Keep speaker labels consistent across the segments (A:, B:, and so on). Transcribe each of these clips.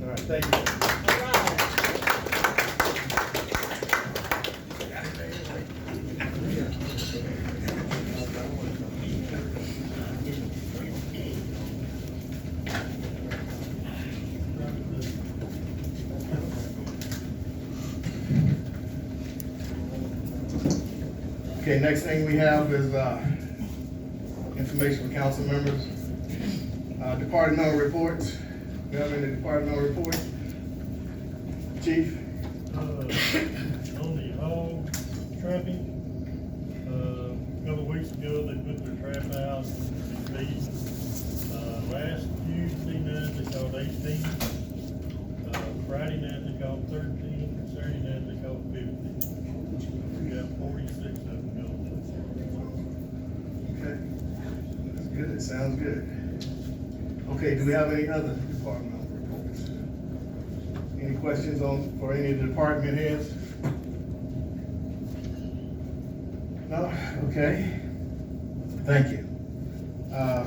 A: right, thank you. Okay, next thing we have is, uh, information from council members. Uh, departmental reports, we have any departmental reports? Chief,
B: uh, on the hog trapping. Uh, a couple of weeks ago, they put their trap out and feed. Uh, last Tuesday night, they caught eighteen. Uh, Friday night, they caught thirteen, and Saturday night, they caught fifty. We got forty-six of them going.
A: okay, that's good, it sounds good. Okay, do we have any other departmental reports? Any questions on, for any of the department heads? No, okay, thank you. Uh,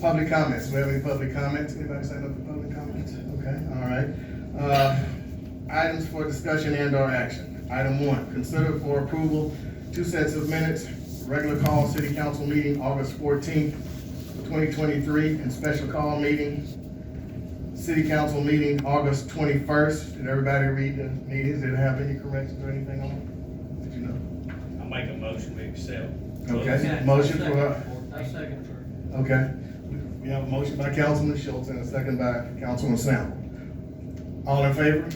A: Public comments, we have any public comments? Anybody sign up for public comments? Okay, all right. Uh, Items for discussion and or action. Item one, consider for approval, two sets of minutes, regular call city council meeting, August fourteenth, twenty twenty-three, and special call meeting, city council meeting, August twenty-first. Did everybody read the meetings? Did it have any corrections or anything on it? Did you know?
C: I make a motion, we accept.
A: Okay, motion for, uh,
D: I second for.
A: Okay, we have a motion by Councilman Schultz and a second by Councilman Sample. All in favor?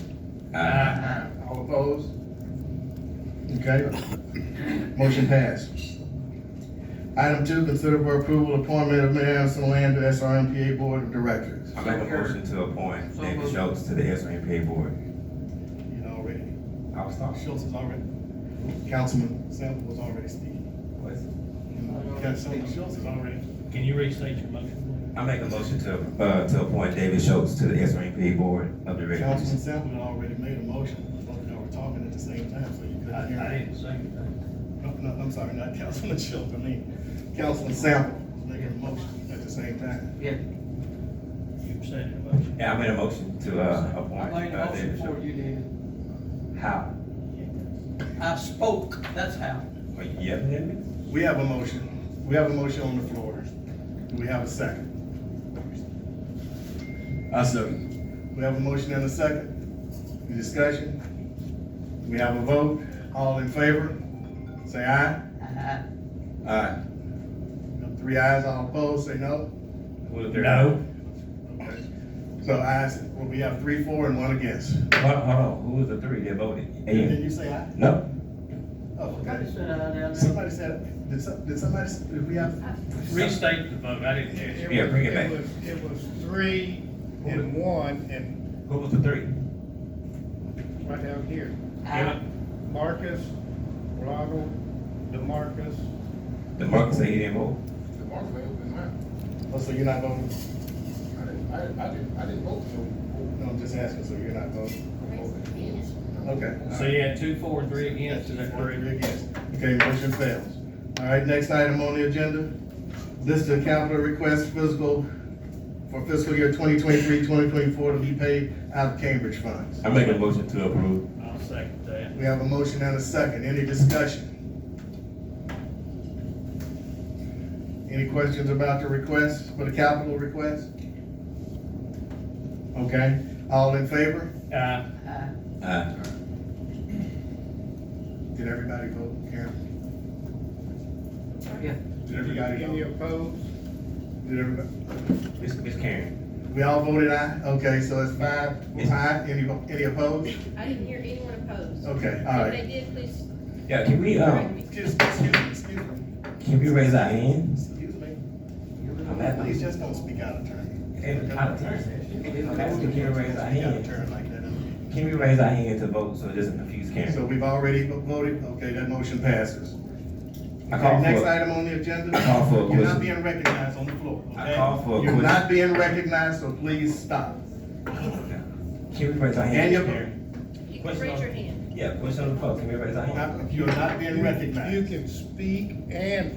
D: Uh,
A: Aye. All opposed? Okay, motion passed. Item two, consider for approval appointment of Mayor Anderson Land to SRMPA Board of Directors.
E: I make a motion to appoint David Schultz to the SRNPA board.
A: You know, already,
E: I was talking.
A: Schultz is already, Councilman Sample was already speaking. Councilman Schultz is already.
C: Can you restate your motion?
E: I make a motion to, uh, to appoint David Schultz to the SRNPA board of
A: Councilman
E: directors.
A: Sample had already made a motion, both of y'all were talking at the same time, so you couldn't hear.
D: I didn't second that.
A: No, no, I'm sorry, not Councilman Schultz, I mean, Councilman Sample was making a motion at the same time.
D: Yeah.
C: You said your motion.
E: Yeah, I made a motion to, uh, appoint,
D: I made a
E: uh,
D: motion
E: David
D: for
E: Schultz.
D: you, David.
E: How?
D: I spoke, that's how.
E: Wait, you yelling at me?
A: We have a motion, we have a motion on the floor, do we have a second?
E: I second.
A: We have a motion and a second, Any discussion? We have a vote, all in favor, say aye.
D: I-
E: Aye.
A: Three ayes, all opposed, say no.
E: Well, if they're-
C: No.
A: Okay. So ayes, well, we have three, four, and one against.
E: Hold, hold on, who was the three that voted?
A: Did
E: And,
A: you say aye?
E: no,
A: Oh,
D: I
A: okay.
D: just said I down there.
A: Somebody said, did some, did somebody, did we have?
C: Restate the vote, I didn't hear you.
E: Yeah, bring it back.
F: was- It was three and one, and
E: who was the three?
F: right down here,
D: I-
F: Marcus, Ronald, DeMarcus.
E: The market said he didn't vote.
G: The market may open mine.
A: Oh, so you're not voting?
G: I didn't, I didn't, I didn't, I didn't vote for
A: No, I'm just asking, so you're not voting?
G: him.
A: Okay.
C: So you had two, four, and three against, is that correct?
A: Okay, motion fails. All right, next item on the agenda, list of capital requests fiscal, for fiscal year 2023-2024 to be paid out of Cambridge funds.
E: I make a motion to approve.
C: I'll second that.
A: We have a motion and a second, any discussion? Any questions about the request, for the capital request? Okay, all in favor?
C: Uh,
D: I-
E: Aye.
A: Did everybody vote, Karen?
D: Yeah.
A: Did everybody
F: Any
A: vote?
F: opposed?
A: Did everybody?
E: It's, it's Karen.
A: We all voted aye, okay, so it's five,
E: Yes.
A: aye, any, any opposed?
H: I didn't hear anyone opposed.
A: Okay, all
H: If
A: right.
H: they did, please.
E: Yeah, can we,
H: correct
E: um,
H: me.
A: Excuse, excuse me, excuse me,
E: can we raise our hands?
A: excuse me.
E: I'm at-
A: Please just don't speak out of turn.
E: And out of turn. I'm asking, can we raise our
A: Speak out of
E: hand?
A: turn like that.
E: Can we raise our hand to vote so it doesn't confuse
A: So
E: Karen?
A: we've already voted, okay, that motion passes.
E: I call
A: Next
E: for,
A: item on the agenda.
E: I call for a
A: You're not
E: question.
A: being recognized on the floor, okay?
E: I call for a
A: You're
E: question.
A: not being recognized, so please stop.
E: can we raise our hand?
A: And your-
E: Karen?
H: You can
E: Question
H: raise
E: on-
H: your hand.
E: Yeah, question on the floor, can we raise our hand?
A: You're not being recognized.
F: You can speak and